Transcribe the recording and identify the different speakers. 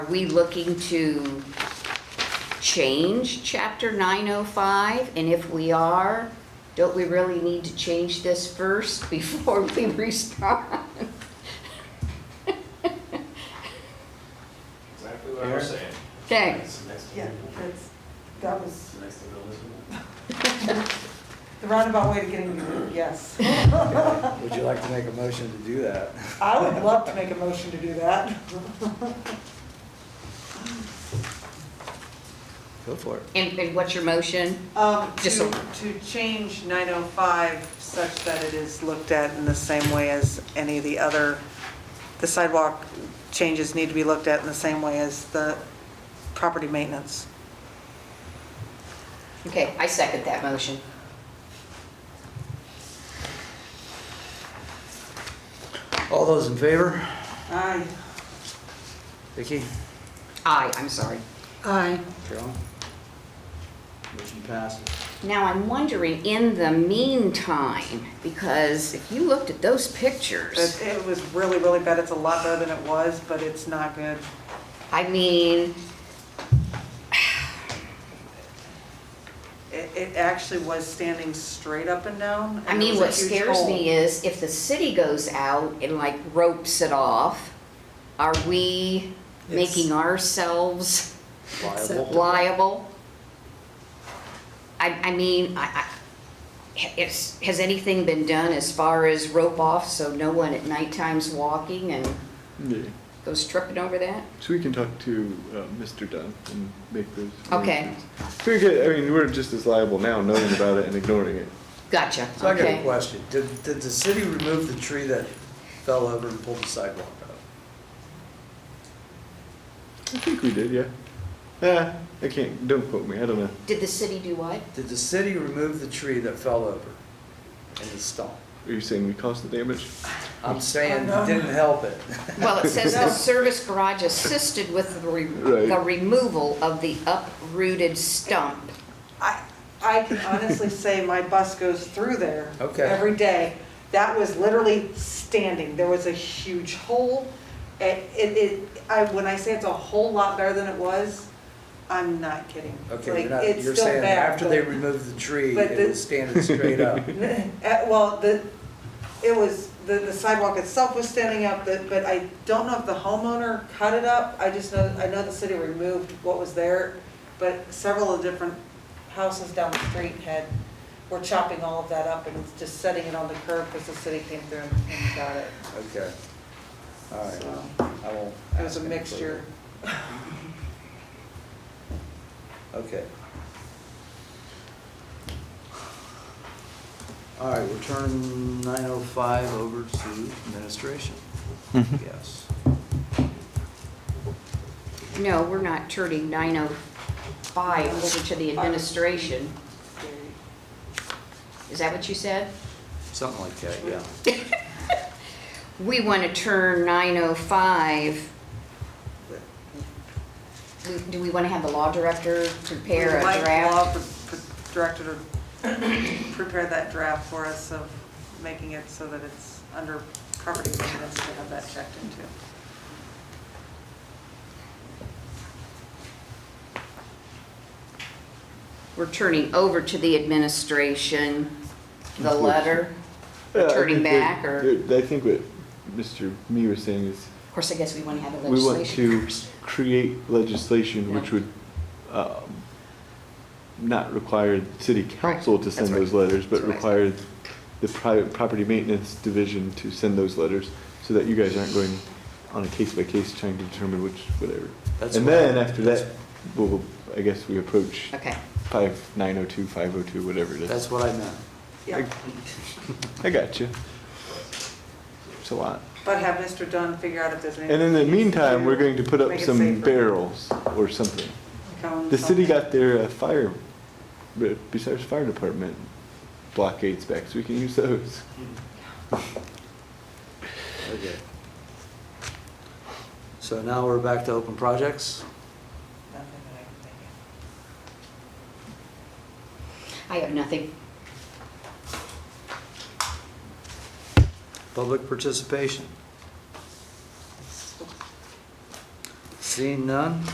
Speaker 1: we looking to change chapter nine oh five? And if we are, don't we really need to change this first before we respond?
Speaker 2: Exactly what I was saying.
Speaker 1: Okay,
Speaker 2: It's the next to
Speaker 3: Yeah,
Speaker 2: Google.
Speaker 3: that's, that
Speaker 2: It's
Speaker 3: was
Speaker 2: the next to Google, isn't it?
Speaker 3: the roundabout way to getting to your yes.
Speaker 4: Would you like to make a motion to do that?
Speaker 3: I would love to make a motion to do that.
Speaker 4: Go for it.
Speaker 1: and, and what's your motion?
Speaker 3: Um,
Speaker 1: Just
Speaker 3: to, to change 905 such that it is looked at in the same way as any of the other, the sidewalk changes need to be looked at in the same way as the property maintenance.
Speaker 1: Okay, I second that motion.
Speaker 4: All those in favor?
Speaker 3: Aye.
Speaker 4: Vicky?
Speaker 1: Aye, I'm sorry.
Speaker 3: Aye.
Speaker 4: Carolyn? Motion passes.
Speaker 1: Now, I'm wondering, in the meantime, because if you looked at those pictures,
Speaker 3: It it was really, really bad. It's a lot better than it was, but it's not good.
Speaker 1: I mean,
Speaker 3: It, it actually was standing straight up and down. and
Speaker 1: I
Speaker 3: there
Speaker 1: mean,
Speaker 3: was a
Speaker 1: what
Speaker 3: huge
Speaker 1: scares
Speaker 3: hole.
Speaker 1: me is if the city goes out and like ropes it off, are we making ourselves
Speaker 4: Liable?
Speaker 1: liable? I, I mean, I, I, it's, has anything been done as far as rope off so no one at nighttime's walking and
Speaker 5: Yeah.
Speaker 1: goes tripping over that?
Speaker 5: So we can talk to uh, Mr. Dunn and make those.
Speaker 1: Okay.
Speaker 5: arrangements. We get, I mean, we're just as liable now knowing about it and ignoring it.
Speaker 1: Gotcha,
Speaker 4: So I got a
Speaker 1: okay.
Speaker 4: question. Did, did the city remove the tree that fell over and pulled the sidewalk out?
Speaker 5: I think we did, yeah. Ah, I can't, don't quote me, I don't know.
Speaker 1: Did the city do what?
Speaker 4: Did the city remove the tree that fell over and the stump?
Speaker 5: Are you saying we caused the damage?
Speaker 4: I'm saying,
Speaker 3: Oh, no.
Speaker 4: didn't help it.
Speaker 1: Well, it says the service garage assisted with the re-
Speaker 5: Right.
Speaker 1: the removal of the uprooted stump.
Speaker 3: I, I can honestly say my bus goes through there.
Speaker 4: Okay.
Speaker 3: Every day. That was literally standing. There was a huge hole. It, it- it, I, when I say it's a whole lot better than it was, I'm not kidding.
Speaker 4: Okay, you're
Speaker 3: Like,
Speaker 4: not,
Speaker 3: it's
Speaker 4: you're
Speaker 3: still
Speaker 4: saying
Speaker 3: bad,
Speaker 4: after
Speaker 3: but-
Speaker 4: they removed the tree,
Speaker 3: but
Speaker 4: it
Speaker 3: the-
Speaker 4: was standing straight up.
Speaker 3: Eh, Well, the, it was, the the sidewalk itself was standing up, but but I don't know if the homeowner cut it up. I just know, I know the city removed what was there, but several of the different houses down the street had, were chopping all of that up and just setting it on the curb because the city came through and- and got it.
Speaker 4: Okay. All right,
Speaker 3: So,
Speaker 4: I won't.
Speaker 3: It was
Speaker 4: ask
Speaker 3: a
Speaker 4: any further.
Speaker 3: mixture.
Speaker 4: Okay. All right, we'll turn nine oh five over to administration, yes.
Speaker 1: No, we're not turning 905 over to the administration. Is that what you said?
Speaker 4: Something like that, yeah.
Speaker 1: We want to turn 905. We- Do we want to have the law director prepare a
Speaker 3: Mike
Speaker 1: draft?
Speaker 3: Law pre- pre- directed her, prepare that draft for us of making it so that it's under property maintenance to have that checked into.
Speaker 1: We're turning over to the administration, the letter.
Speaker 5: Yeah, I
Speaker 1: Turning
Speaker 5: think we-
Speaker 1: back, or-
Speaker 5: uh, I think what Mr. Me was saying is,
Speaker 1: Of course, I guess we want to have the
Speaker 5: we want
Speaker 1: legislation
Speaker 5: to
Speaker 1: first.
Speaker 5: create legislation which
Speaker 1: Yeah.
Speaker 5: would um, not require the city council to
Speaker 1: that's
Speaker 5: send
Speaker 1: right.
Speaker 5: those letters, but
Speaker 1: That's right.
Speaker 5: require the private property maintenance division to send those letters, so that you guys aren't going on a case-by-case trying to determine which, whatever.
Speaker 4: That's
Speaker 5: And
Speaker 4: what-
Speaker 5: then after that,
Speaker 4: that's-
Speaker 5: we'll, I guess we approach
Speaker 1: Okay.
Speaker 5: five, nine oh two, five oh two, whatever it is.
Speaker 4: That's what I meant.
Speaker 3: Yeah,
Speaker 5: I got you. It's a lot.
Speaker 3: but have Mr. Dunn figure out if there's any.
Speaker 5: And in the meantime, we're going to put up
Speaker 3: Make it
Speaker 5: some
Speaker 3: safer.
Speaker 5: barrels or something.
Speaker 3: Cone,
Speaker 5: The city
Speaker 3: something.
Speaker 5: got their uh, fire, uh, besides fire department blockades back, so we can use those.
Speaker 4: Okay. So now we're back to open projects.
Speaker 3: Nothing that I can think of.
Speaker 1: I have nothing.
Speaker 4: Public participation. Seeing none,